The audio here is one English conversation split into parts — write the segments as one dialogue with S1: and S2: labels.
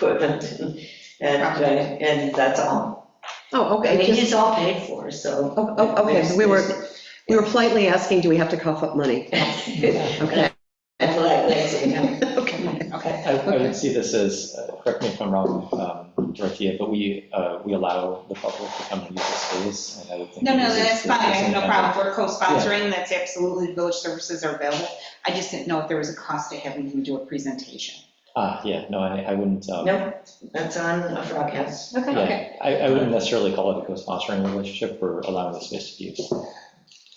S1: equipment, and, uh, and that's all.
S2: Oh,
S1: I
S2: okay,
S1: mean,
S2: just-
S1: it's all paid for, so.
S2: Oh, oh, okay, so we were- we were politely asking, do we have to cough up money? Okay,
S1: That's what I like to know.
S2: okay.
S1: Okay.
S3: I I would see this as, uh, correct me if I'm wrong, um, Dorothea, but we, uh, we allow the public to come and use the space. and I would think
S4: No, no,
S3: this is-
S4: that's
S3: this
S4: fine, I
S3: is
S4: have no
S3: another-
S4: problem, we're co-sponsoring, that's absolutely, village services are available. I just didn't know if there was a cost to having him do a presentation.
S3: Ah, yeah, no, I I wouldn't, um,
S1: No, that's on a broadcast.
S3: yeah, I I wouldn't necessarily call it a co-sponsoring relationship, we're allowing the space to be used.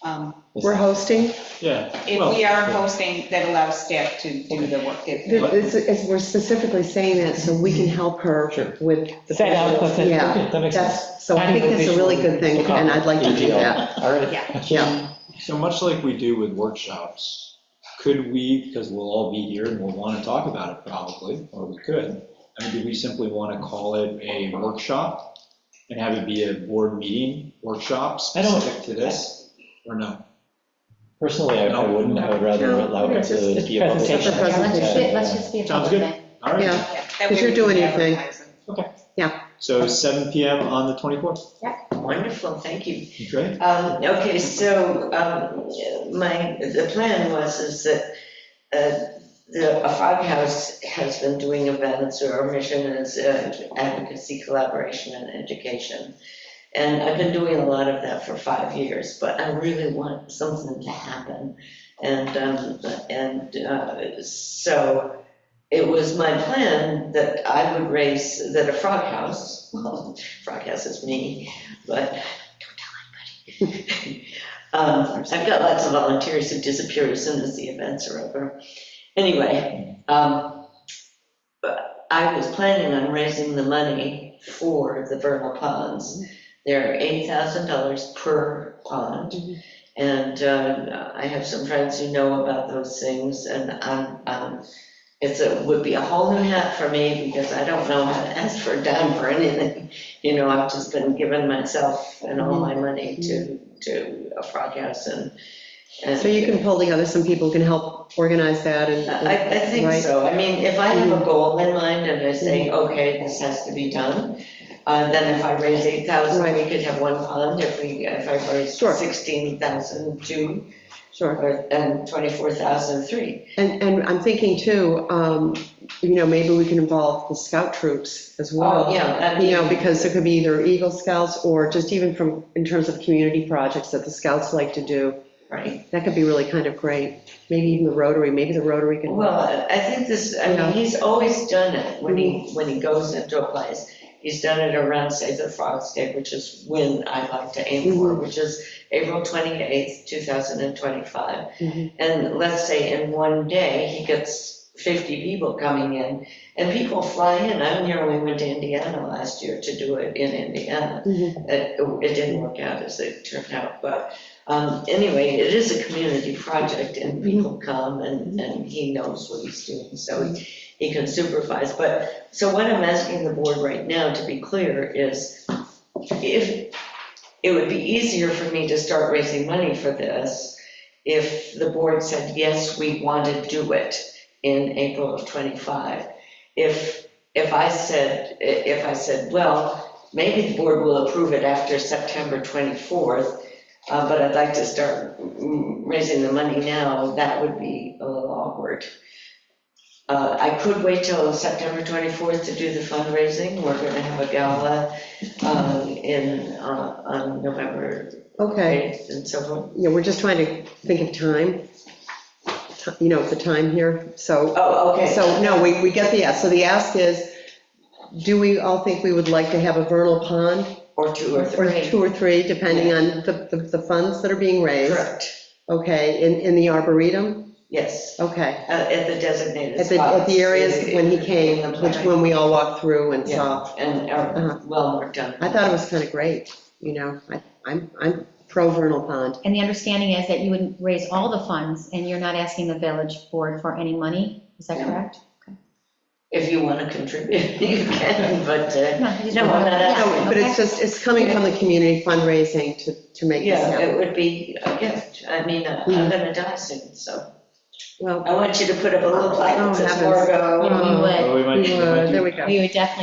S4: Um,
S2: We're hosting,
S5: Yeah,
S4: If we are hosting, that allows staff to do the work.
S2: There-
S4: that-
S2: it's- it's- we're specifically saying that so we can help her
S3: Sure.
S2: with,
S5: Set up,
S3: Okay,
S2: yeah,
S3: That makes sense.
S2: that's, so I think that's a really good thing, and I'd like to do that,
S3: All right.
S4: Yeah.
S2: yeah.
S5: so much like we do with workshops, could we, because we'll all be here and we'll want to talk about it probably, or we could. I mean, do we simply want to call it a workshop and have it be a board meeting workshop
S3: I don't-
S5: specific to this? Or no?
S3: Personally, I I wouldn't, I would rather
S2: No,
S3: allow it to
S2: just-
S3: be a public.
S2: Just a
S3: event.
S6: Yeah, let's just,
S2: presentation.
S3: Yeah.
S6: let's just be a
S5: Sounds
S6: public
S5: good.
S6: thing.
S5: All right,
S2: Yeah.
S4: Yeah, that
S2: 'Cause
S4: way
S2: you're
S4: we
S2: doing
S4: can
S2: your thing.
S4: advertise it.
S5: so 7 PM on the 24th,
S1: Wonderful, thank you.
S5: great.
S1: Um, Okay, so um, my, the plan was is that uh, the a Foghouse has been doing events, or our mission is uh, advocacy, collaboration, and education. And I've been doing a lot of that for five years, but I really want something to happen. And, um, and uh, so it was my plan that I would raise, that a Frog House, well, Frog House is me, but um, I've got lots of volunteers who disappear as soon as the events are over. Anyway, um, but I was planning on raising the money for the vernal ponds. They're $8,000 per pond. And uh, I have some friends who know about those things and I'm, um, it's a, would be a whole new hat for me because I don't know how to ask for a dime for anything. You know, I've just been giving myself and all my money to, to a frog house and. and-
S2: So you can pull together some people who can help organize that and.
S1: I, I think
S2: right?
S1: so. I mean, if I have a goal in mind and I say,
S2: Mm-hmm.
S1: okay, this has to be done, uh, then if I raise 8,000, we could have one fund. If we, if I raise
S2: Sure.
S1: 16,000, two,
S2: Sure,
S1: or- and 24,000, three.
S2: and, and I'm thinking too, um, you know, maybe we can involve the scout troops as well.
S1: Oh, yeah. I
S2: You know,
S1: mean,
S2: because it could be either Eagle Scouts or just even from, in terms of community projects that the scouts like to do.
S1: Right.
S2: That could be really kind of great. Maybe even the Rotary, maybe the Rotary can.
S1: Well, I I think this, I
S2: Yeah. Mm-hmm.
S1: mean, he's always done it when he, when he goes into a place. He's done it around Save the Frogs Day, which is when I like to aim for,
S2: Mm-hmm.
S1: which is April 28th, 2025.
S2: Mhm.
S1: And let's say in one day, he gets 50 people coming in, and people fly in. I nearly went to Indiana last year to do it in Indiana.
S2: Mhm.
S1: It it didn't work out as it turned out, but um, anyway, it is a community project, and people come, and and he knows what he's doing, so he he can supervise. But, so what I'm asking the board right now, to be clear, is if, it would be easier for me to start raising money for this if the board said, yes, we want to do it in April of '25. If, if I said, if I said, well, maybe the board will approve it after September 24th, uh, but I'd like to start mm, raising the money now, that would be a little awkward. Uh, I could wait till September 24th to do the fundraising. We're going to have a gala um, in, uh, on November
S2: Okay,
S1: 8th and so forth.
S2: yeah, we're just trying to think of time, Ti- you know, the time here, so.
S1: Oh, okay.
S2: So, no, we, we get the ask. So the ask is, do we all think we would like to have a vernal pond?
S1: Or two or three.
S2: two or three, depending on the, the- the funds that are being raised.
S1: Correct,
S2: Okay, in, in the arboretum?
S1: yes,
S2: Okay.
S1: uh, at the designated
S2: At the, at
S1: spots.
S2: the areas when he came,
S1: In the
S2: which
S1: plan.
S2: when we all walked through and saw.
S1: Yeah, and are
S2: Uh-huh.
S1: well worked on.
S2: I thought it was kind of great, you know, I, I'm, I'm pro vernal pond.
S6: And the understanding is that you would raise all the funds, and you're not asking the village board for any money, is that
S1: Yeah.
S6: correct?
S1: If you want to contribute, you can, but, uh,
S6: No, you just
S1: No,
S6: want-
S1: no, no,
S6: yeah,
S2: No, but it's
S6: okay.
S2: just, it's coming from the community fundraising to, to make this
S1: yeah, Hmm.
S2: happen.
S1: it would be a gift. I mean, uh, I'm going to die soon, so.
S6: Well,
S7: I want you to put up a little plaque that
S6: Oh,
S7: says
S6: heavens.
S7: Wargo.
S2: We would,
S1: Oh, Mm. we might-
S6: we
S1: we might
S6: would-
S1: do-
S2: uh,
S6: there we go.
S2: we would definitely